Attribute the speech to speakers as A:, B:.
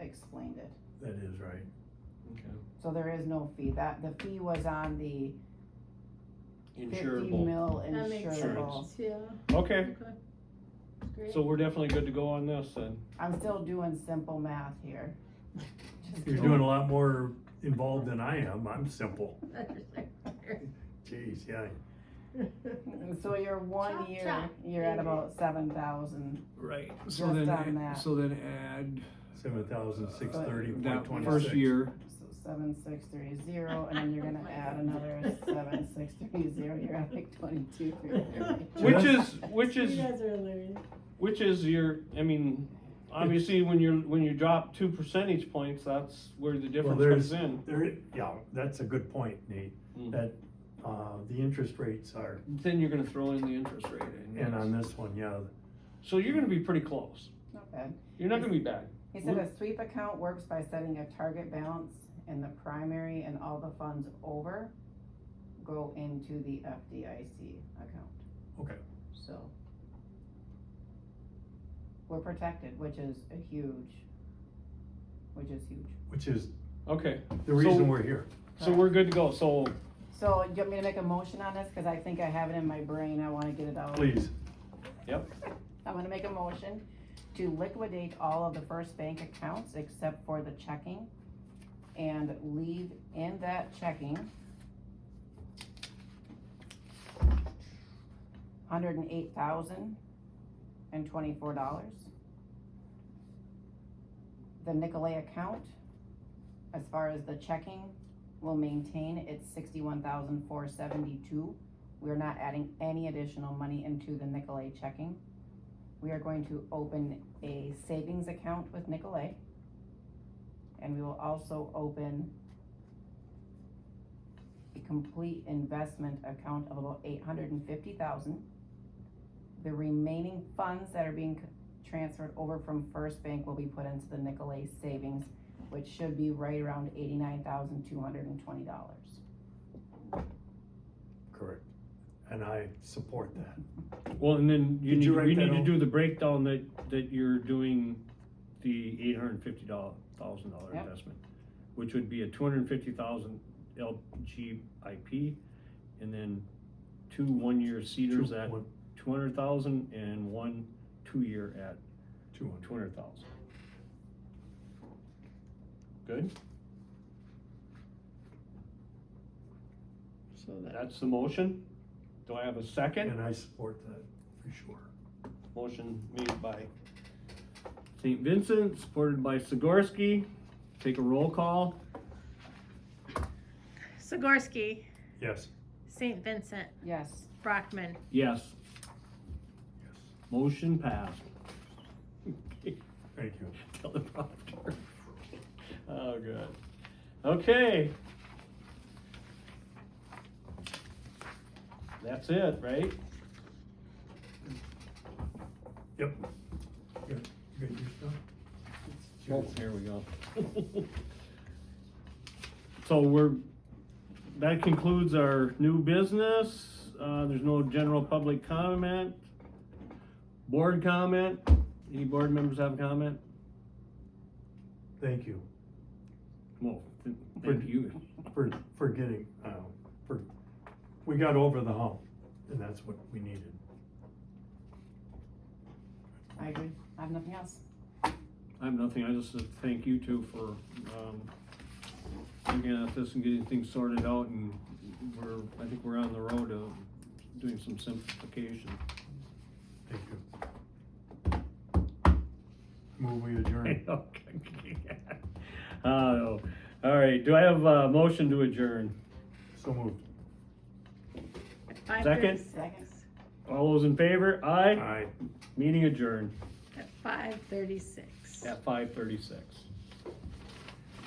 A: explained it.
B: That is right.
C: Okay.
A: So there is no fee. That, the fee was on the fifty
C: Insurable.
A: mil
D: That makes
A: insurable.
D: sense, yeah,
C: Okay,
D: okay. Great.
C: so we're definitely good to go on this then.
A: I'm still doing simple math here. Just
B: You're doing a lot more involved than I am. I'm simple. Jeez, yeah.
A: kidding. So you're one
D: Chop,
A: year,
D: chop,
A: you're at
D: baby.
A: about seven thousand.
E: Right, so
A: Just on
E: then, add-
A: that.
E: so then add.
B: Seven thousand six thirty point
E: That
B: twenty-six.
E: first year,
A: So seven, six, three, zero, and then you're
D: Oh
A: gonna
D: my
A: add
D: God.
A: another seven, six, three, zero, you're at like twenty-two, three, three.
C: Which is, which
D: You
C: is,
D: guys are hilarious.
C: which is your, I mean, obviously, when you're, when you drop two percentage points, that's where the difference
B: there's-
C: comes in.
B: There, yeah, that's a good point, Nate,
C: Mm.
B: that, uh, the interest rates are,
C: Then you're gonna throw in the interest rate in.
B: and on this one, yeah,
C: So you're gonna be pretty close.
A: Not bad.
C: You're not gonna be bad.
A: He said a sweep account works by setting a target balance in the primary and all the funds over go into the FDIC account.
B: Okay.
A: So. We're protected, which is a huge, which is huge.
B: which is
C: Okay,
B: the
C: So-
B: reason we're here.
C: so we're good to go. So
A: So do you want me to make a motion on this? Cause I think I have it in my brain. I wanna get it out.
B: Please,
A: I'm gonna make a motion to liquidate all of the First Bank accounts except for the checking and leave in that checking hundred and eight thousand and twenty-four dollars. The Nicolay account, as far as the checking, will maintain its sixty-one thousand four seventy-two. We're not adding any additional money into the Nicolay checking. We are going to open a savings account with Nicolay. And we will also open a complete investment account of about eight hundred and fifty thousand. The remaining funds that are being c- transferred over from First Bank will be put into the Nicolay savings, which should be right around eighty-nine thousand two hundred and twenty dollars.
B: correct, and I support that.
C: Well, and then you
B: Did
C: need,
B: you write
C: we
B: that
C: need to
B: out?
C: do the breakdown that, that you're doing the eight hundred and fifty dollar, thousand dollar
A: Yep.
C: investment. Which would be a two hundred and fifty thousand LGIP, and then two one-year cedars
B: Two-
C: at
B: one-
C: two hundred thousand, and one two-year at
B: Two hundred.
C: two hundred thousand. Good,
E: so that,
C: that's the motion. Do I have a second?
B: And I support that for sure.
C: Motion made by St. Vincent, supported by Sigorsky. Take a roll call.
D: Sigorsky,
B: Yes,
D: St. Vincent,
A: Yes,
D: Brockman.
C: Yes,
B: yes,
C: motion passed.
B: thank you.
C: Teleprompter. Oh, good. Okay. That's it, right?
B: Yep. Good, good, your stuff?
C: Here we go. So we're, that concludes our new business. Uh, there's no general public comment. Board comment. Any board members have a comment?
B: Thank you
C: Well, th- thank you.
B: for, for getting, uh, for, we got over the hump, and that's what we needed.
A: I agree. I have nothing else.
C: I have nothing, I just uh, thank you two for, um, looking at this and getting things sorted out, and we're, I think we're on the road of doing some simplification.
B: Thank you. Move we adjourn.
C: Oh, all right, do I have a motion to adjourn?
B: So moved.
D: Five
C: Second.
D: thirty-six.
C: All those in favor, aye,
B: Aye.
C: meeting adjourned
D: At five thirty-six.
C: at five thirty-six.